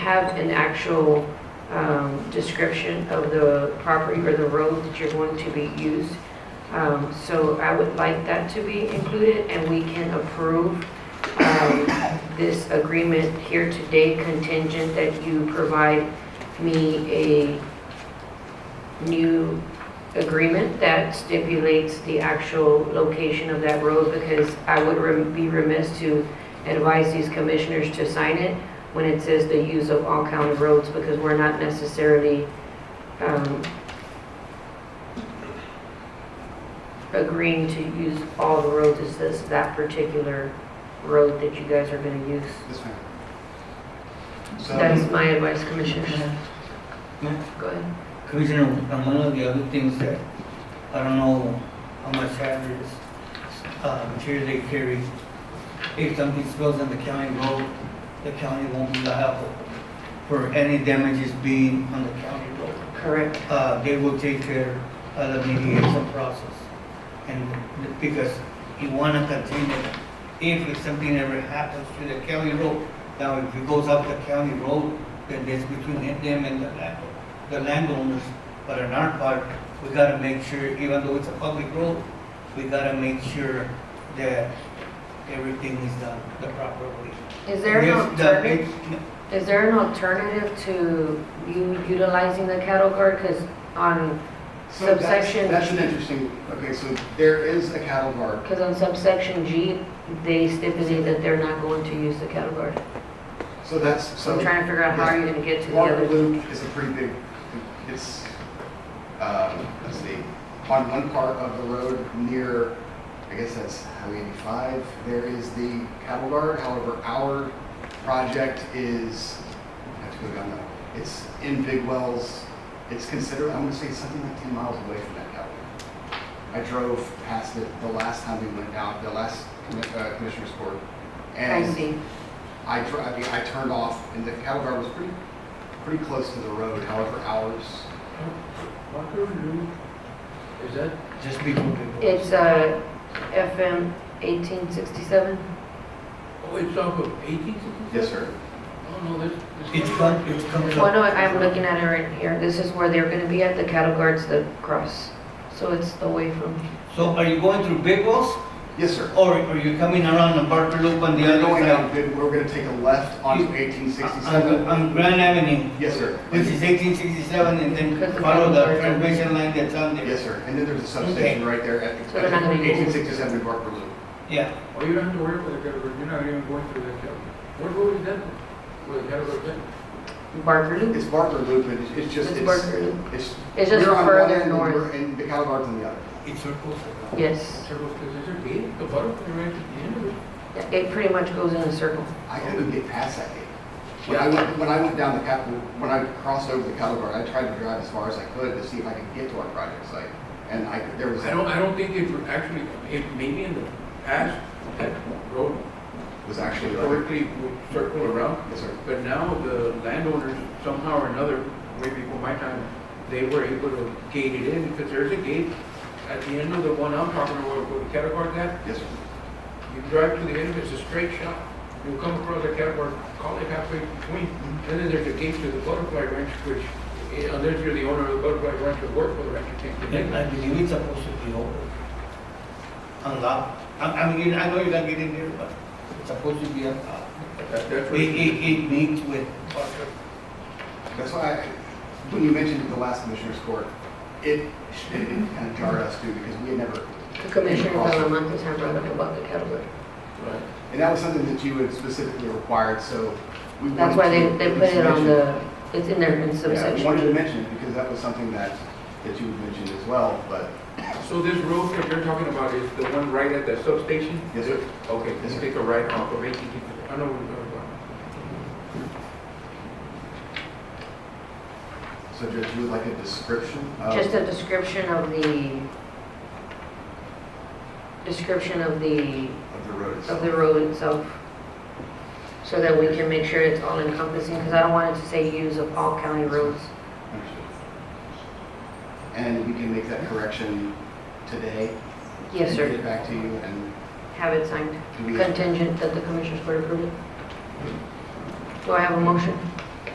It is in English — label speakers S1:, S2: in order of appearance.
S1: have an actual um, description of the property or the road that you're going to be used. Um, So I would like that to be included, and we can approve um, this agreement here today contingent that you provide me a new agreement that stipulates the actual location of that road, because I would rem- be remiss to advise these commissioners to sign it when it says the use of all county roads, because we're not necessarily um, agreeing to use all the roads, it's just that particular road that you guys are gonna use.
S2: Yes, ma'am. So,
S1: That's my advice, commissioners. Go ahead.
S3: Commissioner, um, one of the other things that, I don't know how much hazardous uh, material they carry, if something spills on the county road, the county won't be liable for any damages being on the county road.
S1: Correct.
S3: Uh, They will take care of the mediation process. And because you want to continue, if it's something ever happens to the county road, now if it goes up the county road, then it's between them and the land- the landowners. But on our part, we gotta make sure, even though it's a public road, we gotta make sure that everything is done the proper way.
S1: Is there an
S3: If the-
S1: alternative, is there an alternative to you utilizing the cattle guard? Because on
S2: so that's-
S1: subsection,
S2: That's an interesting, okay, so there is a cattle guard.
S1: because on subsection G, they stipulate that they're not going to use the cattle guard.
S2: So that's,
S1: So
S2: so
S1: I'm trying to figure out how are you going to get to the other.
S2: Waterloo is a pretty big, it's, um, let's see, on one part of the road near, I guess that's Highway 85, there is the cattle guard. However, our project is, I have to go down now, it's in Big Wells. It's considered, I'm gonna say something like 10 miles away from that cattle guard. I drove past it the last time we went out, the last commi- uh, commissioner's court.
S1: I
S2: and.
S1: see.
S2: I, tr- I mean, I turned off, and the cattle guard was pretty, pretty close to the road, however, ours.
S4: Walker Loop, is that,
S3: Just be people.
S1: It's uh, FM 1867.
S4: oh, it's off of eighteen sixty?
S2: Yes, sir.
S4: Oh, no, that's. that's-
S3: It's fun, it comes
S1: Well,
S3: up.
S1: Oh, no, I'm looking at it right here. This is where they're going to be at, the cattle guard's the cross. So it's away from,
S3: So are you going through Big Wells?
S2: Yes, sir.
S3: Or are you coming around the Barker Loop on the
S2: We're
S3: other
S2: going
S3: side?
S2: down, good- we're gonna take a left onto eighteen
S3: On-
S2: sixty-seven.
S3: On Grand Avenue,
S2: Yes, sir.
S3: which is eighteen sixty-seven, and
S1: Because the
S3: then follow the
S1: Barker-
S3: transmission line that's on there.
S2: Yes, sir. And then there's a substation right there at
S1: So they're not gonna use-
S2: eighteen sixty-seven in Barker Loop.
S3: Yeah,
S4: Oh, you don't have to worry about the category, you're not even going through that category. What road is that? Well, the category, is that?
S1: Barker Loop.
S2: It's Barker Loop, and it's- it's just,
S1: It's
S2: it's,
S1: Barker Loop.
S2: it's.
S1: It's just
S2: we're on one
S1: further
S2: end and
S1: north.
S2: we're- And the cattle guard's on the other.
S3: it circles around.
S1: Yes.
S4: Circles, because there's a gate, the bottom, right at the end of it.
S1: It pretty much goes in a circle.
S2: I couldn't get past that gate. When I went, when I went down the cap, when I crossed over the cattle guard, I tried to drive as far as I could to see if I could get to our project site. And I, there was.
S4: I don't, I don't think it would actually, it maybe in the past, that road
S2: was actually like,
S4: historically would circle around,
S2: yes, sir.
S4: but now the landowners somehow or another, maybe before my time, they were able to gate it in, because there's a gate at the end of the one I'm talking about, where the category that,
S2: Yes, sir.
S4: You drive to the end, it's a straight shot. You'll come across a catwalk, call it halfway between. And then there's a gate to the butterfly ranch, which eh, unless you're the owner of the butterfly ranch or work for the ranch, you can't get in.
S3: And I believe it's supposed to be over. Unlocked. I, I mean, I know you're not getting there, but it's supposed to be unlocked.
S4: That- That's
S3: It,
S4: what
S3: it, it meets with Barker.
S2: That's why, I- when you mentioned the last commissioner's court, it, it kind of jarred us too, because we had never,
S1: The Commissioner Talamantes had brought up about the cattle guard.
S4: Right.
S2: and that was something that you had specifically required, so we wanted
S1: That's
S2: to.
S1: why they, they
S2: at
S1: put
S2: least
S1: it on
S2: mention-
S1: the, it's in there in
S2: Yeah, we wanted to
S1: subsection.
S2: mention it because that was something that, that you had mentioned as well, but
S4: So this road that you're talking about is the one right at the substation?
S2: Yes, sir.
S4: Okay,
S2: Yes,
S4: let's
S2: sir.
S4: take a right off of eighteen. I know what you're talking about.
S2: So Judge, you would like a description of?
S1: Just a description of the, description of the,
S2: Of the road
S1: of
S2: itself?
S1: the road itself. So that we can make sure it's all encompassing, because I don't want it to say use of all county roads.
S2: Understood. And we can make that correction today?
S1: Yes,
S2: and Get
S1: sir.
S2: it back to you and
S1: Have it signed.
S2: do we?
S1: Contingent that the Commissioners Court approve it. Do I have a motion?